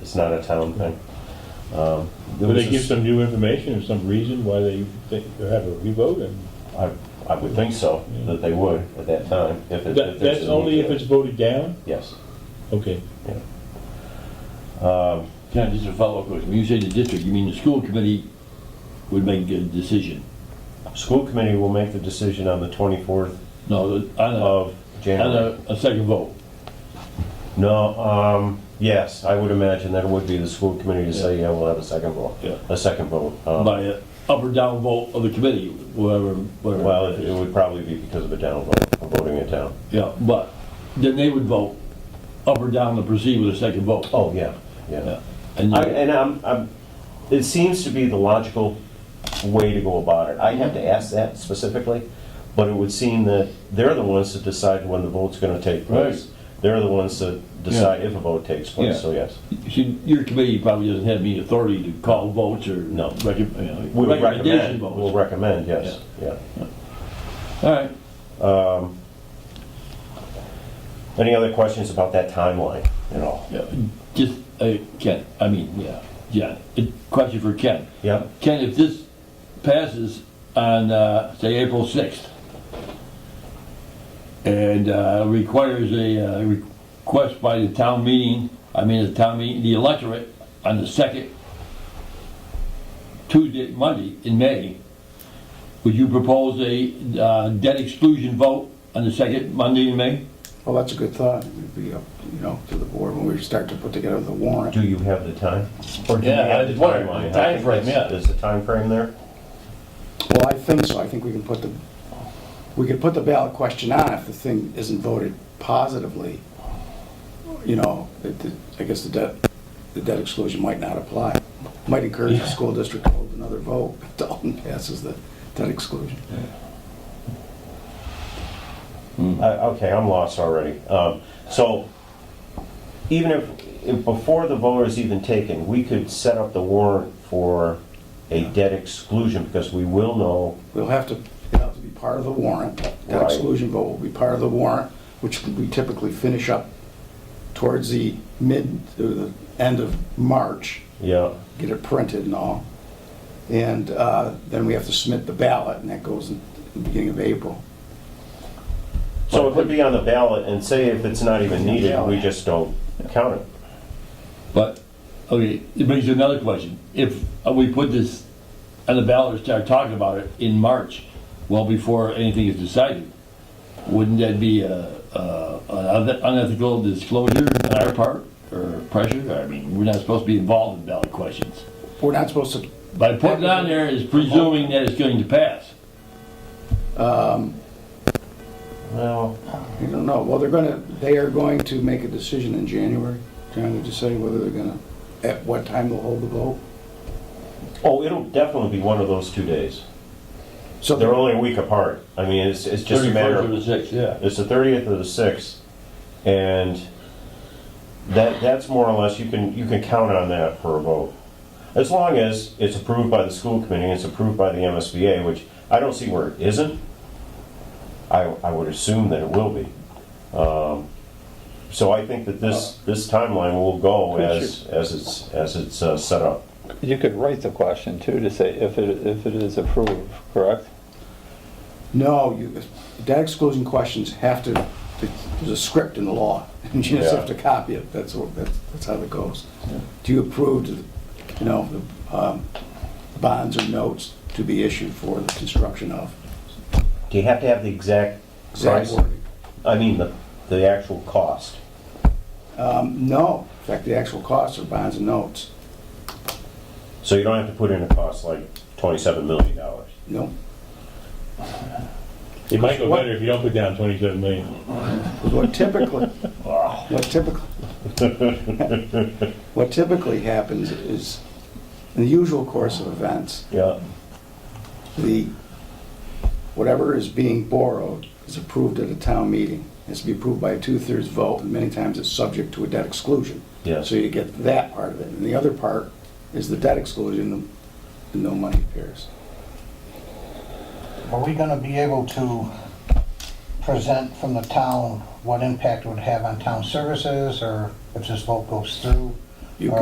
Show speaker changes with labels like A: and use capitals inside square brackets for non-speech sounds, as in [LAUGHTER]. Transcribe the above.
A: It's not a town thing. Um, there
B: But
A: was
B: they
A: a
B: give
A: s-
B: some new information or some reason why they think, or have a revote, and
A: I, I would think so, that they would at that time, if it.
B: that,
A: if there's
B: that's
A: a need
B: only
A: to-
B: if it's voted down?
A: Yes.
B: Okay.
C: Can I just a follow-up question? When you say the district, you mean the school committee would make a decision?
A: School committee will make the decision on the 24th
C: No, the- on a,
A: of
C: on
A: January.
C: a, a second vote.
A: No, um, yes, I would imagine that it would be the school committee to say, yeah, we'll have a second vote.
C: Yeah.
A: A second vote. Um,
C: By a up or down vote of the committee, whatever, whatever.
A: Well, it it would probably be because of a down vote, of voting it down.
C: Yeah, but then they would vote up or down to proceed with a second vote.
A: Oh, yeah, yeah.
C: Yeah. And
A: I-
C: you-
A: And I'm, I'm, it seems to be the logical way to go about it. I have to ask that specifically, but it would seem that they're the ones that decide when the vote's gonna take place. They're the ones that decide if a vote takes place,
C: Yeah.
A: so yes.
C: see, your committee probably doesn't have any authority to call votes or.
A: No.
C: recom- you know,
A: We would
C: Recommendation
A: recommend, we'll
C: votes.
A: recommend, yes, yeah.
C: All right.
A: Any other questions about that timeline at all?
C: Yeah, Just, uh, Ken, I mean, yeah, yeah, a question for Ken.
A: Yeah.
C: Ken, if this passes on, uh, say, April 6th, and uh, requires a uh, request by the town meeting, I mean, the town meeting, the electorate, on the second Tuesday, Monday in May, would you propose a uh, debt exclusion vote on the second Monday in May?
D: Well, that's a good thought. It would be up, you know, to the board when we start to put together the warrant.
A: Do you have the time? Or do you
C: Yeah,
A: have
C: I
A: the
C: just wondered,
A: timeline?
C: the
A: I think
C: timeframe,
A: that's-
C: yeah.
A: Is the timeframe there?
D: Well, I think so. I think we can put the, we could put the ballot question on if the thing isn't voted positively. You know, it- it- I guess the debt, the debt exclusion might not apply. Might encourage the school district to hold another vote if Dalton passes the [LAUGHS] debt exclusion.
A: Uh, Okay, I'm lost already. Um, So even if, if before the vote is even taken, we could set up the warrant for a debt exclusion because we will know,
D: We'll have to, it'll have to be part of the warrant. That
A: Right.
D: exclusion vote will be part of the warrant, which we typically finish up towards the mid, to the end of March,
A: yeah,
D: get it printed and all. And uh, then we have to submit the ballot, and that goes in the beginning of April.
A: so it could be on the ballot and say if it's not even needed, we just don't count it.
C: But, okay, it brings you another question. If uh, we put this on the ballot and start talking about it in March, well before anything is decided, wouldn't that be a, a- an uneth- unethical disclosure on our part or pressure? I mean, we're not supposed to be involved in ballot questions.
D: We're not supposed to,
C: By putting it on there is presuming that it's going to pass.
A: Well,
D: I don't know, well, they're gonna, they are going to make a decision in January, trying to decide whether they're gonna, at what time they'll hold the vote.
A: oh, it'll definitely be one of those two days.
D: So
A: They're
D: they're,
A: only a week apart. I mean, it's, it's just a matter of
C: 31st or the 6th, yeah.
A: It's the thirtieth of the sixth, and that, that's more or less, you can, you can count on that for a vote. As long as it's approved by the school committee, it's approved by the MSBA, which I don't see where it isn't. I, I would assume that it will be. Um, So I think that this, this timeline will go as, as it's, as it's uh, set up.
E: You could write the question too to say if it, if it is approved, correct?
D: no, you, debt exclusion questions have to, there's a script in the law, [LAUGHS] and you just have to copy it, that's, what- that's that's how it goes. Do you approve, to, you know, the um, bonds or notes to be issued for the construction of?
A: Do you have to have the exact
D: Exact
A: price?
D: wording.
A: I mean, the, the actual cost.
D: Um, No, in fact, the actual costs are bonds and notes.
A: So you don't have to put in a cost like twenty-seven million dollars.
D: No,
B: It might go
D: What-
B: better if you don't put down 27 million.
D: what typically, what typically, what typically happens is, in the usual course of events,
A: Yeah.
D: the, whatever is being borrowed is approved at a town meeting. It's to be approved by a two-thirds vote, and many times it's subject to a debt exclusion.
A: Yes.
D: So you get that part of it, and the other part is the debt exclusion, and no money appears.
F: Are we gonna be able to present from the town what impact it would have on town services, or if this vote goes through?